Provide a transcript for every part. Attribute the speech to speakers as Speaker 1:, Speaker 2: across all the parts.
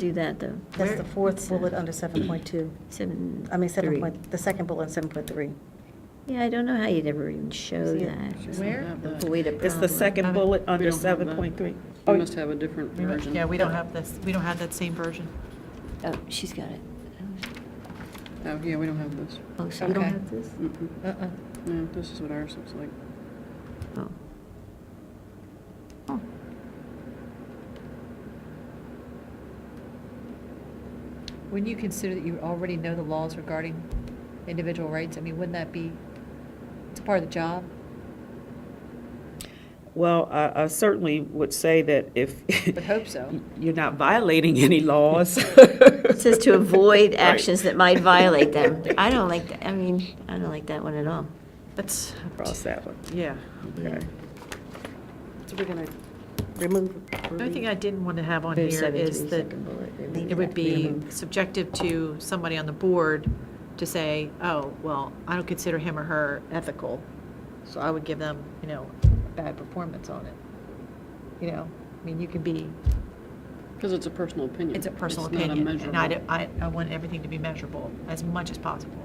Speaker 1: do that, though.
Speaker 2: That's the fourth bullet under 7.2.
Speaker 1: Seven.
Speaker 2: I mean, 7
Speaker 1: three.
Speaker 2: point, the second bullet, 7.3.
Speaker 1: Yeah, I don't know how you'd ever even show
Speaker 2: See it?
Speaker 1: that.
Speaker 3: Where?
Speaker 1: Avoid a problem.
Speaker 4: It's the second bullet under
Speaker 5: We don't have that.
Speaker 4: 7.3.
Speaker 5: We
Speaker 4: Oh,
Speaker 5: must have a different
Speaker 3: We don't-
Speaker 5: version.
Speaker 3: Yeah, we don't have this, we don't have that same version.
Speaker 1: Oh, she's got it.
Speaker 5: Oh, yeah, we don't have this.
Speaker 1: Oh, so you don't
Speaker 3: Okay.
Speaker 1: have this?
Speaker 5: Mm-mm.
Speaker 3: Uh-uh.
Speaker 5: No, this is what ours looks like.
Speaker 1: Oh.
Speaker 3: Wouldn't you consider that you already know the laws regarding individual rights? I mean, wouldn't that be, it's a part of the job?
Speaker 4: Well, I I certainly would say that if.
Speaker 3: Would hope so.
Speaker 4: You're not violating any laws.
Speaker 1: It says to avoid
Speaker 4: Right.
Speaker 1: actions that might violate them. I don't like, that. I mean, I don't like that one at all.
Speaker 3: That's,
Speaker 4: Cross that one.
Speaker 3: yeah.
Speaker 4: Okay.
Speaker 2: So we're going to remove.
Speaker 3: The only thing I didn't want to have on
Speaker 1: There's
Speaker 3: here
Speaker 1: seven,
Speaker 3: is
Speaker 1: three,
Speaker 3: that
Speaker 1: second bullet.
Speaker 3: it would be subjective to somebody on the board to say, oh, well, I don't consider him or her ethical, so I would give them, you know, bad performance on it. You know, I mean, you can be,
Speaker 5: Because it's a personal opinion.
Speaker 3: it's a personal
Speaker 5: not
Speaker 3: opinion, and I,
Speaker 5: measurable.
Speaker 3: don't- I, I want everything to be measurable as much as possible.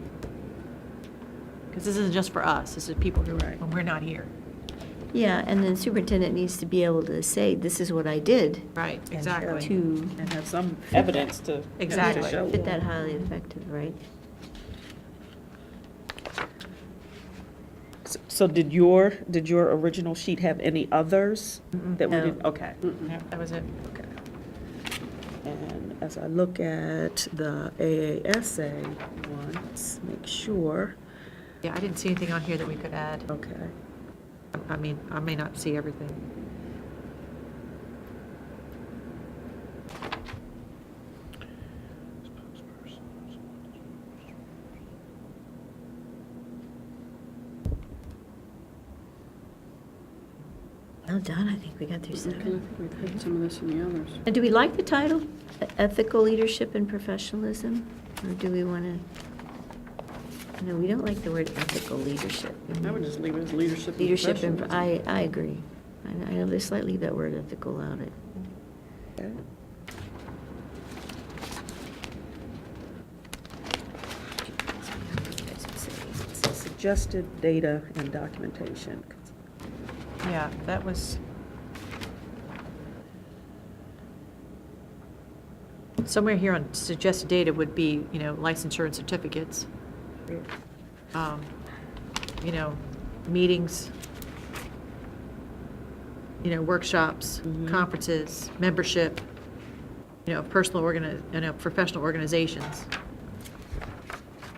Speaker 3: Because this isn't just for us, this is people who,
Speaker 5: Right.
Speaker 3: when we're not here.
Speaker 1: Yeah, and then superintendent needs to be able to say, this is what I did
Speaker 3: Right,
Speaker 2: exactly.
Speaker 3: exactly.
Speaker 1: to
Speaker 4: And have some evidence to. to
Speaker 3: Exactly.
Speaker 4: show.
Speaker 1: fit that highly effective, right?
Speaker 4: S- So did your, did your original sheet have any others that we
Speaker 1: No.
Speaker 4: didn't? Okay.
Speaker 3: That was it.
Speaker 4: Okay. And as I look at the AASA one, let's make sure,
Speaker 3: Yeah, I didn't see anything on here that we could add.
Speaker 4: okay.
Speaker 3: I mean, I may not see everything.
Speaker 1: Well done, I think we got through
Speaker 5: Okay, I
Speaker 1: seven.
Speaker 5: think we've had some of this in the others.
Speaker 1: And do we like the title, E- Ethical Leadership and Professionalism? Or do we want to, no, we don't like the word ethical leadership.
Speaker 5: I would just leave it as leadership and
Speaker 1: Leadership, and
Speaker 5: professionalism.
Speaker 1: I, I agree. I I know they slightly leave that word ethical out it.
Speaker 4: Okay. Suggested data and documentation.
Speaker 3: Yeah, that was. Somewhere here on suggested data would be, you know, licensure and certificates, um, you know, meetings, you know, workshops, conferences, membership, you know, personal organi, you know, professional organizations.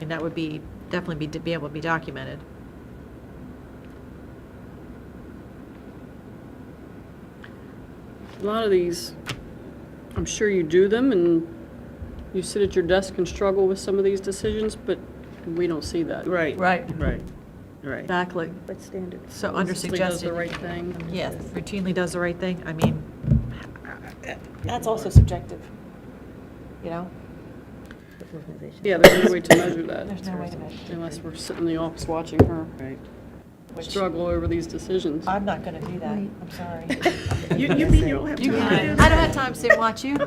Speaker 3: And that would be, definitely be, be able to be documented.
Speaker 5: A lot of these, I'm sure you do them and you sit at your desk and struggle with some of these decisions, but we don't see that.
Speaker 4: Right.
Speaker 3: Right.
Speaker 4: Right, right.
Speaker 3: Exactly.
Speaker 2: But standard.
Speaker 3: So under
Speaker 5: Consistently does the
Speaker 3: suggested,
Speaker 5: right thing.
Speaker 3: yes, routinely does the right thing, I mean.
Speaker 4: That's
Speaker 3: also subjective. You know?
Speaker 5: Yeah, there's no way to measure that
Speaker 3: There's no way to measure.
Speaker 5: unless we're sitting in the office watching her
Speaker 4: Right.
Speaker 5: struggle over these decisions.
Speaker 3: I'm not gonna do that, I'm sorry.
Speaker 4: You, you mean you don't have
Speaker 3: You
Speaker 4: time to do
Speaker 3: can, I
Speaker 4: that?
Speaker 3: don't have time to sit and watch you.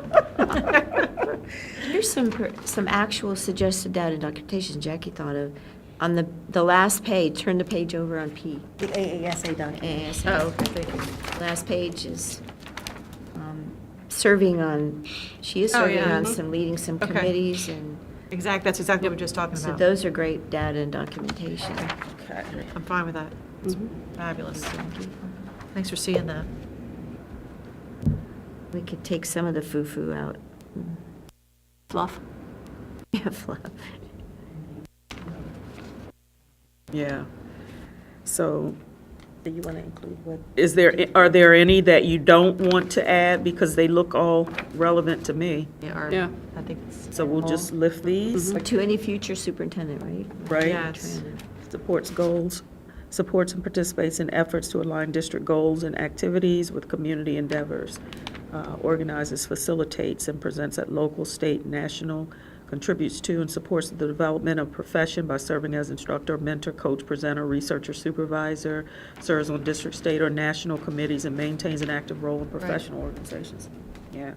Speaker 1: Here's some, per- some actual suggested data and documentation Jackie thought of. On the, the last page, turn the page over on P.
Speaker 2: The AASA document.
Speaker 1: AASA.
Speaker 3: Oh, thank you.
Speaker 1: Last page is um, serving on, she is
Speaker 3: Oh,
Speaker 1: serving
Speaker 3: yeah.
Speaker 1: on
Speaker 3: Mhm.
Speaker 1: some, leading some
Speaker 3: Okay.
Speaker 1: committees, and
Speaker 3: Exact, that's exactly what we we're just talking
Speaker 1: so
Speaker 3: about.
Speaker 1: those are great data and documentation.
Speaker 4: Okay.
Speaker 3: I'm fine with that, it's
Speaker 1: Mm-hmm.
Speaker 3: fabulous. Thanks for seeing that.
Speaker 1: We could take some of the foo-foo out. Fluff? Yeah, fluff.
Speaker 4: Yeah. So
Speaker 2: Do you want to include what?
Speaker 4: is there, are there any that you don't want to add because they look all relevant to me?
Speaker 3: Yeah, or,
Speaker 5: Yeah.
Speaker 3: I think it's.
Speaker 4: So we'll just lift these,
Speaker 1: Or to any future superintendent, right?
Speaker 4: right?
Speaker 3: mm-hmm. Yes.
Speaker 4: Supports goals, supports and participates in efforts to align district goals and activities with community endeavors. Uh, Organizes, facilitates, and presents at local, state, national, contributes to and supports the development of profession by serving as instructor, mentor, coach, presenter, researcher, supervisor, serves on district, state, or national committees, and maintains an active role in professional organizations. Yeah,